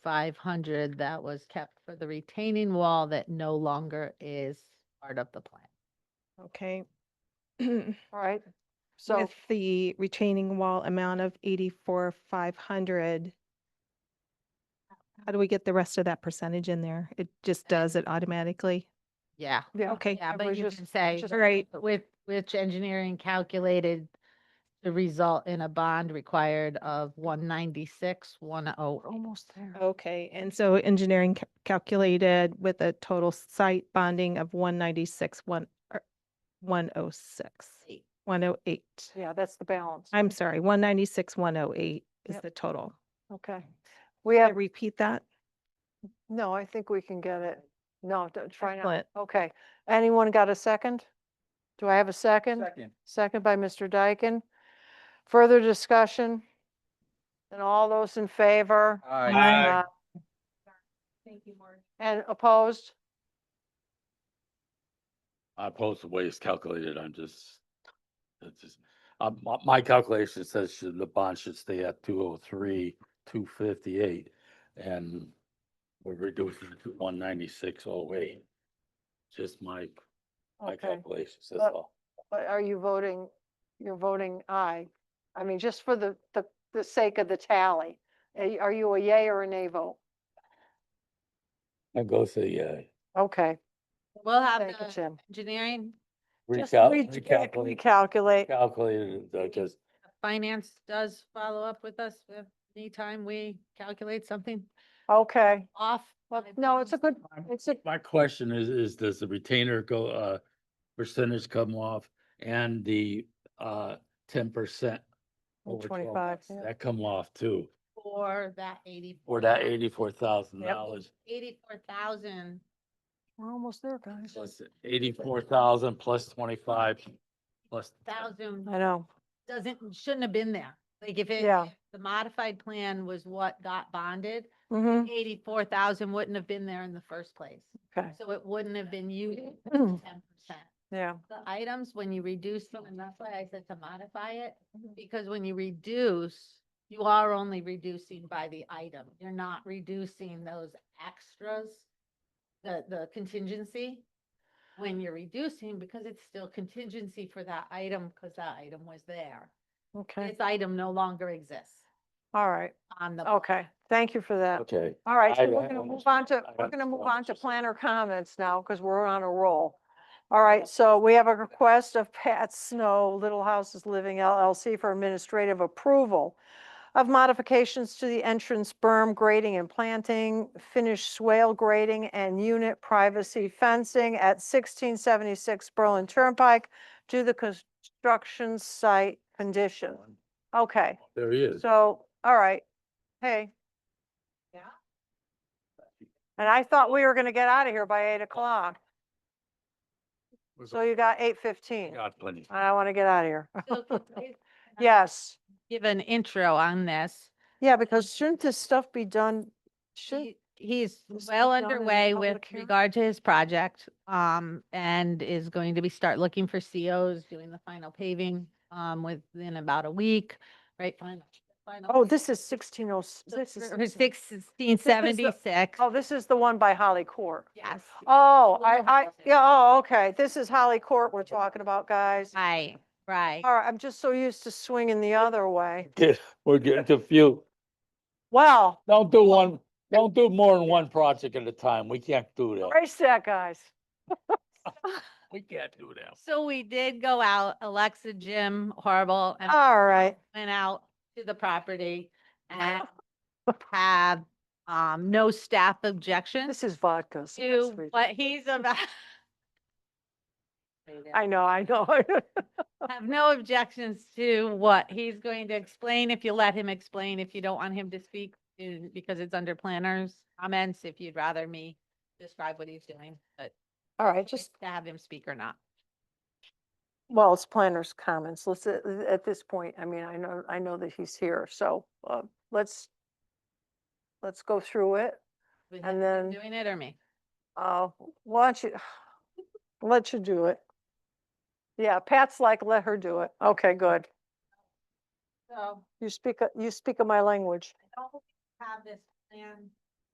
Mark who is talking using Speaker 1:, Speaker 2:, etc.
Speaker 1: five hundred that was kept for the retaining wall that no longer is part of the plan.
Speaker 2: Okay.
Speaker 3: All right. So,
Speaker 2: With the retaining wall amount of eighty-four, five hundred. How do we get the rest of that percentage in there? It just does it automatically.
Speaker 1: Yeah,
Speaker 3: yeah.
Speaker 2: Okay,
Speaker 1: yeah,
Speaker 3: It
Speaker 1: but
Speaker 3: was
Speaker 1: you
Speaker 3: just-
Speaker 1: can
Speaker 3: it's
Speaker 1: say,
Speaker 3: just-
Speaker 2: all right,
Speaker 1: with, which engineering calculated the result in a bond required of one ninety-six, one oh, almost there.
Speaker 2: okay. And so engineering ca- calculated with a total site bonding of one ninety-six, one, er, one oh six,
Speaker 1: Eight.
Speaker 2: one oh eight.
Speaker 3: Yeah, that's the balance.
Speaker 2: I'm sorry, one ninety-six, one oh eight is
Speaker 3: Yep.
Speaker 2: the total.
Speaker 3: Okay. We
Speaker 2: Can I
Speaker 3: have,
Speaker 2: repeat that?
Speaker 3: no, I think we can get it. No, don't try not.
Speaker 2: Excellent.
Speaker 3: Okay. Anyone got a second? Do I have a second?
Speaker 4: Second.
Speaker 3: Second by Mr. Dyken. Further discussion? And all those in favor?
Speaker 4: Aye.
Speaker 2: Thank you, Mark.
Speaker 3: And opposed?
Speaker 5: I oppose the way it's calculated. I'm just, it's just, um, my, my calculation says should- the bond should stay at two oh three, two fifty-eight. And we're reducing it to one ninety-six oh eight. Just my, my
Speaker 3: Okay.
Speaker 5: calculations, that's
Speaker 3: But-
Speaker 5: all.
Speaker 3: But are you voting, you're voting aye? I mean, just for the, the, the sake of the tally. Are you- Are you a yay or a nay vote?
Speaker 5: I go uh, say, yeah,
Speaker 3: Okay.
Speaker 1: We'll have
Speaker 3: Thank you,
Speaker 1: the
Speaker 3: Tim.
Speaker 1: engineering,
Speaker 3: Just
Speaker 5: recal,
Speaker 3: reca-
Speaker 5: recalculate,
Speaker 3: Recalculate.
Speaker 5: calculated, I just,
Speaker 1: finance does follow up with us if anytime we calculate something
Speaker 3: Okay.
Speaker 1: off.
Speaker 3: Well,
Speaker 1: I
Speaker 3: no, it's a good, it's a,
Speaker 5: my question is, is does the retainer go, uh, percentage come off and the, uh, ten percent? over 12
Speaker 3: 25. yeah.
Speaker 5: That come off too,
Speaker 1: For that eighty.
Speaker 5: or that eighty-four thousand dollars,
Speaker 1: Eighty-four thousand.
Speaker 3: We're almost there, guys.
Speaker 5: plus eighty-four thousand plus twenty-five, plus.
Speaker 1: Thousand
Speaker 3: I know.
Speaker 1: doesn't, shouldn't have been there. Like if it,
Speaker 3: Yeah.
Speaker 1: if the modified plan was what got bonded,
Speaker 3: Mm-hmm.
Speaker 1: eighty-four thousand wouldn't have been there in the first place.
Speaker 3: Okay.
Speaker 1: So it wouldn't have been used ten
Speaker 3: Mm.
Speaker 1: percent.
Speaker 3: Yeah.
Speaker 1: The items, when you reduce them, and that's why I said to modify it, because when you reduce, you are only reducing by the item. You're not reducing those extras, the, the contingency. When you're reducing, because it's still contingency for that item, because that item was there.
Speaker 3: Okay.
Speaker 1: This item no longer exists
Speaker 3: All right.
Speaker 1: on the.
Speaker 3: Okay. Thank you for that.
Speaker 5: Okay.
Speaker 3: All right. So
Speaker 5: I-
Speaker 3: we're
Speaker 5: I
Speaker 3: going to
Speaker 5: don't
Speaker 3: move on to,
Speaker 5: I
Speaker 3: we're
Speaker 5: don't
Speaker 3: going to move
Speaker 5: know.
Speaker 3: on to planner comments now because we're on a roll. All right. So we have a request of Pat Snow, Little Houses Living LLC for administrative approval of modifications to the entrance berm grading and planting, finished swale grading and unit privacy fencing at 1676 Berlin Turnpike to the construction site condition. Okay.
Speaker 5: There he is.
Speaker 3: So, all right, hey. Yeah. And I thought we were gonna get out of here by eight o'clock,
Speaker 5: We're
Speaker 3: so you got eight fifteen, and
Speaker 5: Got plenty.
Speaker 3: I wanna get out of here.
Speaker 1: So can I uh,
Speaker 3: Yes,
Speaker 1: Give an intro on this.
Speaker 3: yeah, because shouldn't this stuff be done, should,
Speaker 1: He- He's
Speaker 3: this be
Speaker 1: well
Speaker 3: done in a
Speaker 1: underway with
Speaker 3: public hearing?
Speaker 1: regard to his project, um, and is going to be start looking for COs, doing the final paving, um, within about a week, right? Final. final-
Speaker 3: oh, this is sixteen oh, this is,
Speaker 1: For for sixteen seventy-six,
Speaker 3: oh, this is the one by Holly Court.
Speaker 1: yes,
Speaker 3: Oh,
Speaker 1: Well,
Speaker 3: I,
Speaker 1: no,
Speaker 3: I,
Speaker 1: no, no.
Speaker 3: yeah, oh, okay, this is Holly Court we're talking about, guys.
Speaker 1: right, right.
Speaker 3: All right, I'm just so used to swinging the other way.
Speaker 5: Get, we're getting confused.
Speaker 3: Well,
Speaker 5: Don't do one, don't do more than one project at a time. We can't do that.
Speaker 3: race that, guys.
Speaker 5: We can't do that.
Speaker 1: So we did go out, Alexa, Jim, horrible, and
Speaker 3: All right.
Speaker 1: went out to the property and
Speaker 3: Oh.
Speaker 1: have, um, no staff objections.
Speaker 3: This is vodka. so that's
Speaker 1: to
Speaker 3: re-
Speaker 1: what he's about.
Speaker 3: I know, I know.
Speaker 1: Have no objections to what he's going to explain, if you let him explain, if you don't want him to speak, uh, because it's under planners comments, if you'd rather me describe what he's doing, but
Speaker 3: All right,
Speaker 1: just
Speaker 3: just,
Speaker 1: to have him speak or not.
Speaker 3: well, it's planner's comments. Let's, uh, uh, at this point, I mean, I know, I know that he's here, so uh, let's, let's go through it.
Speaker 1: With
Speaker 3: And
Speaker 1: him
Speaker 3: then-
Speaker 1: Doing it or me?
Speaker 3: Uh, Watch you, let you do it. Yeah, Pat's like, let her do it. Okay, good.
Speaker 1: So
Speaker 3: You speak, a- you speak of my language.
Speaker 1: I don't have this plan